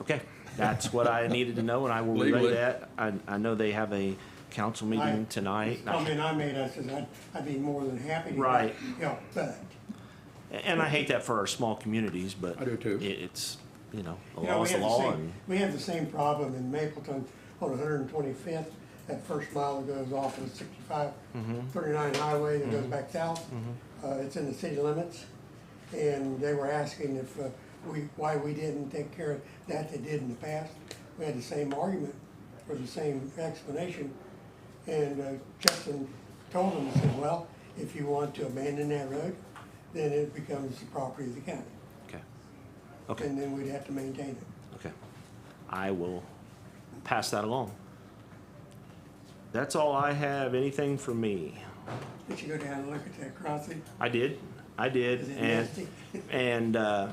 Okay, that's what I needed to know, and I will relay Legally. that. I, I know they have a council I- meeting tonight. Comment I made, I says, I'd, I'd be more than happy to. Right. help, but, And I hate that for our small communities, but. I do too. it- It's, you know, the you know, law we is the had the law. same, and- we had the same problem in Mapleton on one hundred and twenty-fifth. That first mile that goes off of 65, Mm-hmm. 39 highway that goes back south. Uh, it's in the city limits. And they were asking if, uh, we, why we didn't take care of that they did in the past. We had the same argument or the same explanation. And uh, Justin told him, he said, well, if you want to abandon that road, then it becomes the property of the county. Okay, okay, And then we'd have to maintain it. okay. I will pass that along. That's all I have. Anything from me? Did you go down and look at that crossing? I did, I did. Is it and- nasty? And uh,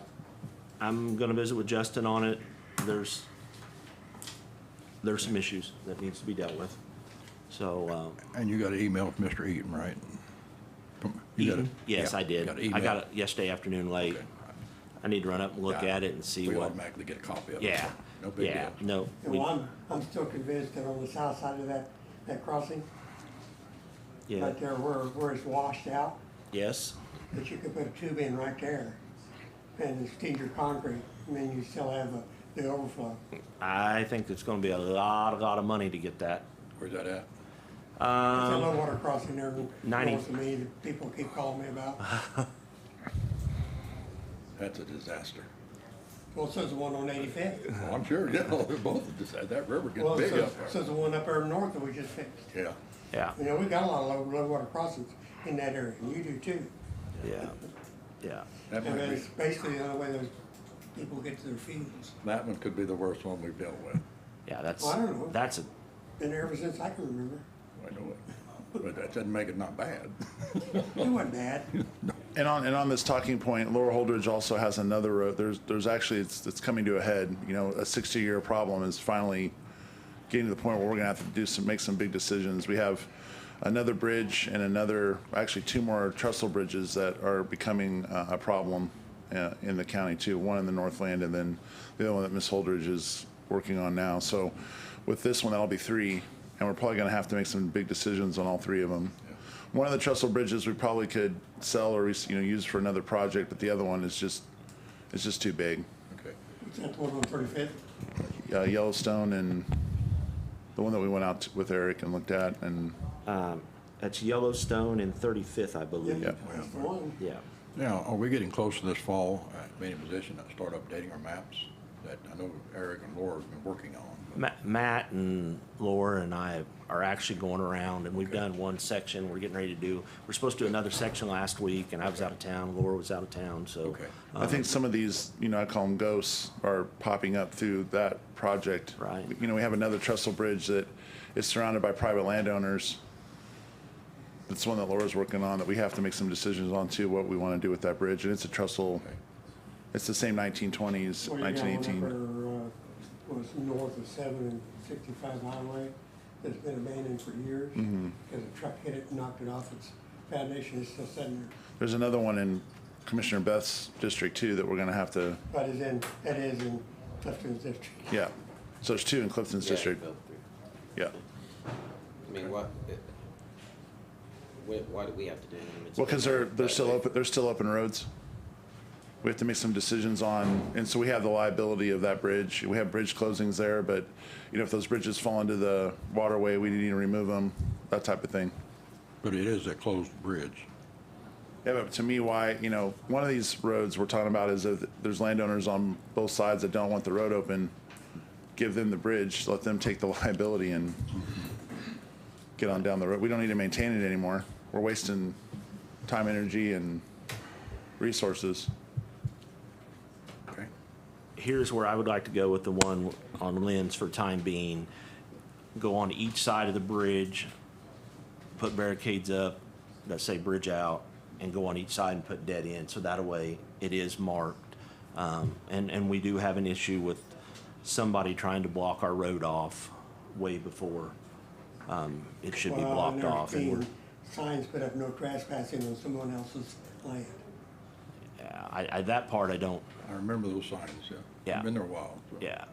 I'm gonna visit with Justin on it. There's, there's some issues that needs to be dealt with. So, um, And you got an email from Mr. Eaton, right? From- you got a- Eaton, yes, yeah, I did. got an I email. got it yesterday afternoon late. Okay. I need to run up and look Yeah. at it and see We what, automatically get a copy of it. yeah, No big yeah, deal. no. And we- well, I'm, I'm still convinced that on the south side of that, that crossing, Yeah, right there where, where it's washed out, yes, that you could put a tube in right there and steam your concrete, and then you still have the, the overflow. I think it's gonna be a lot, a lot of money to get that. Where's that at? It's a low water crossing there Um, ninety- north of me that people keep calling me about. That's a disaster. Well, so's the one on eighty-fifth. Well, I'm sure, yeah, they're both a disaster. That river Well, gets big so's, up there. so's the one up there north that we just fixed. Yeah. Yeah, You know, we got a lot of low, low water crossings in that area, and you do too. yeah, yeah. That And might be, that's basically the only way those people get to their fields. that one could be the worst one we've dealt with. Yeah, that's, Well, I don't know. that's a, Been there ever since I can remember. I know it. But that doesn't make it not bad. It wasn't bad. And on and on this talking point, Lower Holdridge also has another road. There's there's actually it's it's coming to a head. You know, a 60 year problem is finally getting to the point where we're gonna have to do some make some big decisions. We have another bridge and another actually two more trestle bridges that are becoming uh, a problem uh, in the county too. One in the Northland and then the other one that Miss Holdridge is working on now. So with this one, that'll be three, and we're probably gonna have to make some big decisions on all three of them. One of the trestle bridges we probably could sell or res- you know use for another project, but the other one is just it's just too big. Okay. Is that the one on thirty-fifth? Uh, Yellowstone and the one that we went out to, with Eric and looked at, and that's Yellowstone and 35th, I believe. Yeah. That's the one. Yeah. Now, are we getting closer this fall, uh, being in position to start updating our maps? That I know Eric and Laura have been working on. but- Ma- Matt and Laura and I are actually going around, and we've done one section. We're getting ready to do. We're supposed to do another section last week, and I was out of town. Laura was out of town, so. Okay. I think some of these, you know, I call them ghosts, are popping up through that project. Right. You know, we have another trestle bridge that is surrounded by private landowners. That's one that Laura's working on that we have to make some decisions on too, what we want to do with that bridge. And it's a trestle, it's the same 1920s, Well, you got one up 1918. there, uh, Was north of seven and sixty-five highway that's been abandoned for years. Mm-hmm. Cause a truck hit it and knocked it off its foundation. It's still sitting there. There's another one in Commissioner Beth's district too that we're going to have to, But it's in, that is in Clifton's district. yeah. So there's two in Clifton's Yeah, district. built through. Yeah. I mean, what, it- why, why do we have to do them? It's Well, because they're, they're that still way. open, they're still open roads. We have to make some decisions on, and so we have the liability of that bridge. We have bridge closings there, but, you know, if those bridges fall into the waterway, we need to remove them, that type of thing. But it is a closed bridge. Yeah, but to me, why, you know, one of these roads we're talking about is if there's landowners on both sides that don't want the road open, give them the bridge, let them take the liability and get on down the road. We don't need to maintain it anymore. We're wasting time, energy, and resources. Okay. Here's where I would like to go with the one on Lynn's for time being. Go on each side of the bridge, put barricades up that say bridge out, and go on each side and put dead end. So that way, it is marked. Um, and and we do have an issue with somebody trying to block our road off way before um, it should be Well, blocked and there's off. And we're, been Signs put up no trespassing on someone else's land. yeah, I, I, that part I don't. I remember those signs, yeah. Yeah. Been there a while. so. Yeah,